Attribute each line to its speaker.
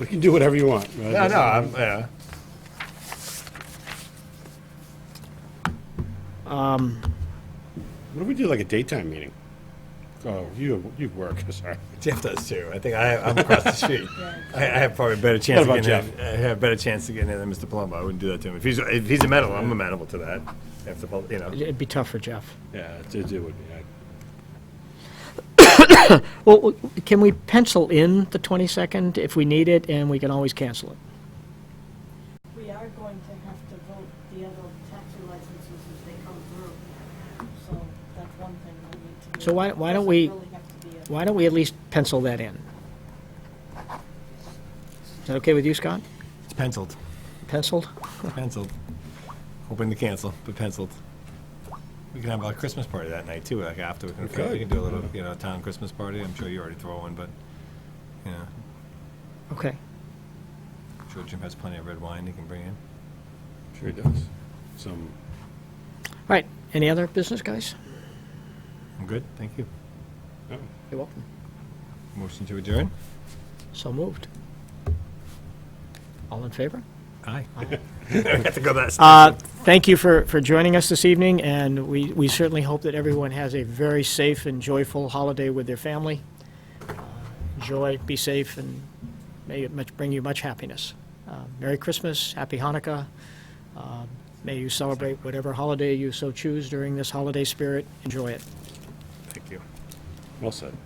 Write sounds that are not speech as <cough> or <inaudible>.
Speaker 1: We can do whatever you want. right?
Speaker 2: No, no, I'm, yeah.
Speaker 1: What if we do like a daytime meeting? Oh, you, you work, <laughs> sorry.
Speaker 2: Jeff does too. I think I, I'm across the street. I, I have probably a better chance.
Speaker 1: What
Speaker 2: of
Speaker 1: about
Speaker 2: getting in, I have a better chance to get in than Mr. Palumbo. I wouldn't do that to him. If he's if he's amenable, I'm amenable to that. If the pub- you know,
Speaker 3: It'd be tough for Jeff.
Speaker 1: Yeah, it- it would be. I-
Speaker 3: Well, w- can we pencil in the 22nd if we need it, and we can always cancel it?
Speaker 4: We are going to have to vote the other taxi licenses as they come through, so that's one thing we need to do.
Speaker 3: So why- why don't
Speaker 4: Doesn't
Speaker 3: we-
Speaker 4: really have to be a-
Speaker 3: Why don't we at least pencil that in? Is that okay with you, Scott?
Speaker 2: it's penciled,
Speaker 3: Penciled?
Speaker 2: It's penciled. Hoping to cancel, but penciled. We can have a Christmas party that night too. Like after we can,
Speaker 1: could.
Speaker 2: we can do a little you know town Christmas party. I'm sure you already throw one, but you know,
Speaker 3: Okay.
Speaker 2: I'm sure Jim has plenty of red wine he can bring in.
Speaker 1: Sure it does. Some,
Speaker 3: All right, any other business, guys?
Speaker 2: I'm good. Thank you.
Speaker 1: oh,
Speaker 3: You're welcome.
Speaker 2: Motion to adjourn.
Speaker 3: So moved. All in favor?
Speaker 2: Aye. <laughs> I have to go that.
Speaker 3: Uh, Thank you for, for joining us this evening, and we, we certainly hope that everyone has a very safe and joyful holiday with their family. Enjoy, be safe, and may it much, bring you much happiness. Uh, Merry Christmas, Happy Hanukkah. Uh, May you celebrate whatever holiday you so choose during this holiday spirit. Enjoy it.
Speaker 2: Thank you.
Speaker 1: well said.